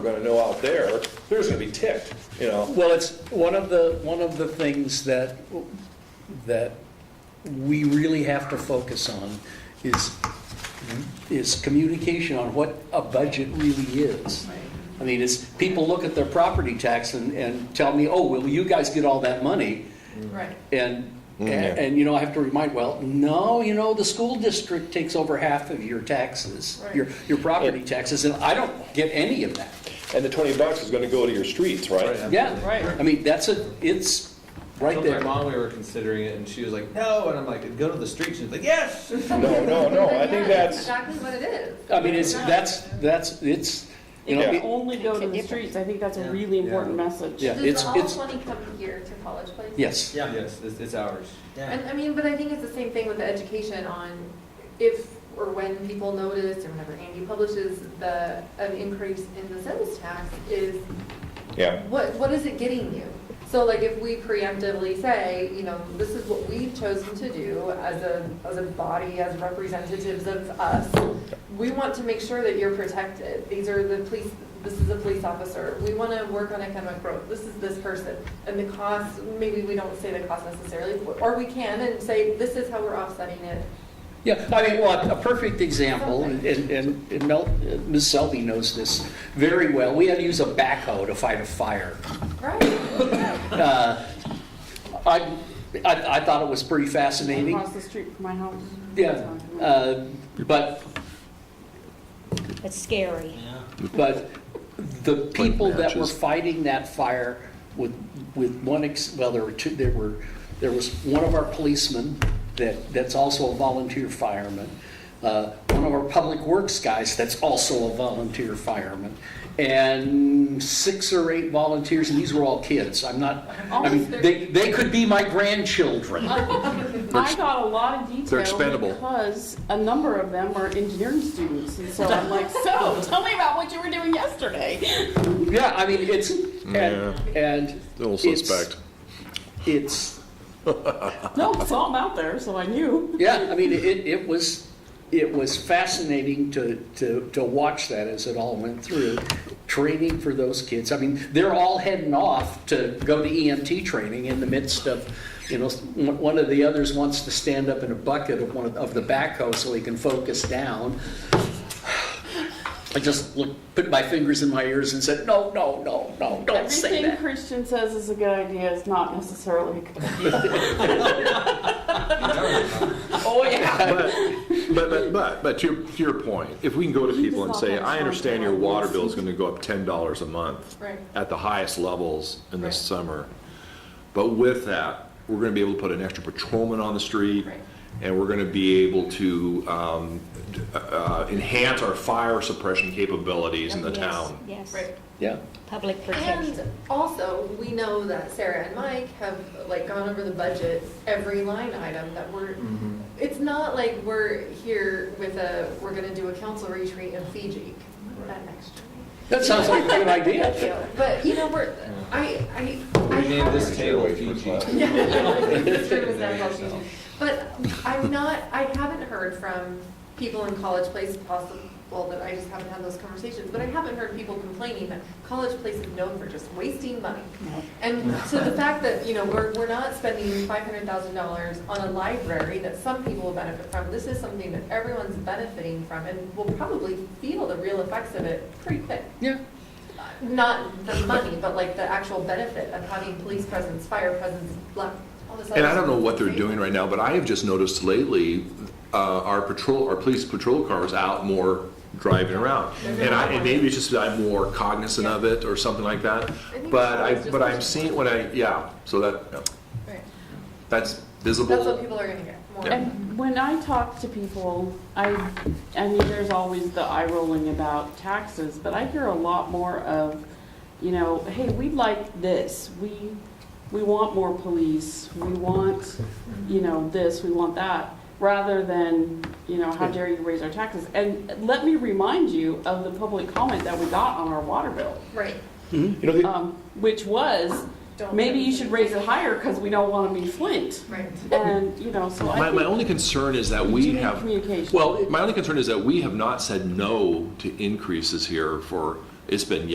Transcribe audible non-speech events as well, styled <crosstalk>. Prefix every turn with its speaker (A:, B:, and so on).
A: we're gonna know out there, they're just gonna be ticked, you know?
B: Well, it's one of the, one of the things that, that we really have to focus on is, is communication on what a budget really is. I mean, it's, people look at their property tax and, and tell me, oh, well, you guys get all that money.
C: Right.
B: And, and,
A: yeah.
B: and, you know, I have to remind, well, no, you know, the school district takes over half of your taxes, your,
C: Right.
B: your property taxes, and I don't get any of that.
A: And the twenty bucks is gonna go to your streets, right?
B: Yeah,
C: Right.
B: I mean, that's a, it's right
D: told
B: there.
D: my mom we were considering it, and she was like, "No," and I'm like, "Go to the street." She's like,
B: <laughs>
D: "Yes."
A: No, no, no, I think that's,
C: Exactly what it is.
B: I mean, it's, that's, that's, it's, you know,
A: Yeah.
B: it-
E: Only go to the streets, I think that's a really important message.
B: Yeah.
C: Does
B: it's-
C: all
B: it's-
C: money come here to College Place?
B: yes.
F: Yeah.
D: Yes, it's, it's ours.
C: And, I mean, but I think it's the same thing with the education on if or when people notice, or whenever Andy publishes the, an increase in the sales tax, is
A: <laughs> yeah,
C: what, what is it getting you? So like if we preemptively say, you know, this is what we've chosen to do as a, as a body, as representatives of us, we want to make sure that you're protected. These are the police, this is a police officer. We want to work on economic growth. This is this person. And the cost, maybe we don't say the cost necessarily, or we can and say, this is how we're offsetting it.
B: Yeah, I mean, well, a perfect example, and, and and Mel, Ms. Selby knows this very well. We had to use a backhoe to fight a fire.
C: Right.
B: Uh, I, I, I thought it was pretty fascinating.
E: Across the street from my house.
B: Yeah, uh, but,
G: It's scary.
B: but the people that were
F: matches.
B: fighting that fire with, with one, ex- well, there were two, there were, there was one of our policemen that, that's also a volunteer fireman, uh, one of our public works guys that's also a volunteer fireman, and six or eight volunteers, and these were all kids. I'm not, I mean, they, they could be my grandchildren.
E: I got a lot of detail.
F: they're expendable.
E: Because a number of them are engineering students, and so I'm like, so, tell me about what you were doing yesterday.
B: Yeah, I mean, it's, and, and.
F: Little
B: it's-
F: suspect.
B: It's,
E: No, it's all out there, so I knew.
B: yeah, I mean, it, it was, it was fascinating to, to, to watch that as it all went through. Training for those kids, I mean, they're all heading off to go to EMT training in the midst of, you know, one one of the others wants to stand up in a bucket of one of, of the backhoe so he can focus down. I just looked, put my fingers in my ears and said, no, no, no, no, don't say
E: Everything
B: that.
E: Christian says is a good idea is not necessarily a good idea.
B: Oh, yeah.
F: But, but, but, but, but to your, to your point, if we can go to people and say, I understand your water bill is gonna go up ten dollars a month
C: Right.
F: at the highest levels in
C: Right.
F: this summer, but with that, we're gonna be able to put an extra patrolman on the street,
C: Right.
F: and we're gonna be able to, um, d- uh, uh, enhance our fire suppression capabilities in the
G: Yes,
F: town.
G: Yes,
C: Right.
B: Yeah.
G: public protection.
C: And also, we know that Sarah and Mike have like gone over the budget, every line item that we're,
D: Mm. Mm-hmm.
C: it's not like we're here with a, we're gonna do a council retreat in Fiji. That next
B: That sounds like a good
C: <laughs>
B: idea.
C: year. But, you know, we're, I, I. I
D: We named
C: have-
D: this table
A: Wait for
D: Fiji.
A: class.
C: <laughs>
D: <laughs>
C: This room is now called Fiji. But I'm not, I haven't heard from people in College Place, possible that I just haven't had those conversations, but I haven't heard people complaining that College Place is known for just wasting money. And so the fact that, you know, we're, we're not spending five hundred thousand dollars on a library that some people will benefit from, this is something that everyone's benefiting from and will probably feel the real effects of it pretty quick.
B: Yeah.
C: Not the money, but like the actual benefit of having police presence, fire presence, blah, all this other.
F: And I don't know what they're
C: stuff.
F: doing right now, but I have just noticed lately, uh, our patrol, our police patrol cars out more driving around. And I, and maybe it's just that I'm more cognizant of it or something like that.
C: think
F: But
C: so,
F: I,
C: it's just-
F: but I'm seeing when I, yeah, so that, yeah,
C: Right.
F: that's
C: That's what
F: visible.
C: people are gonna get more.
E: And when I talk to people, I, I mean, there's always the eye rolling about taxes, but I hear a lot more of, you know, hey, we'd like this, we, we want more police, we want, you know, this, we want that, rather than, you know, how dare you raise our taxes? And let me remind you of the public comment that we got on our water bill,
C: Right.
A: You know, the-
E: um, which was,
C: Don't-
E: maybe you should raise it higher because we don't want to be Flint.
C: Right.
E: And, you know, so I
F: My,
E: think
F: my only concern is that we
E: continued
F: have,
E: communication.
F: well, my only concern is that we have not said no to increases here for, it's been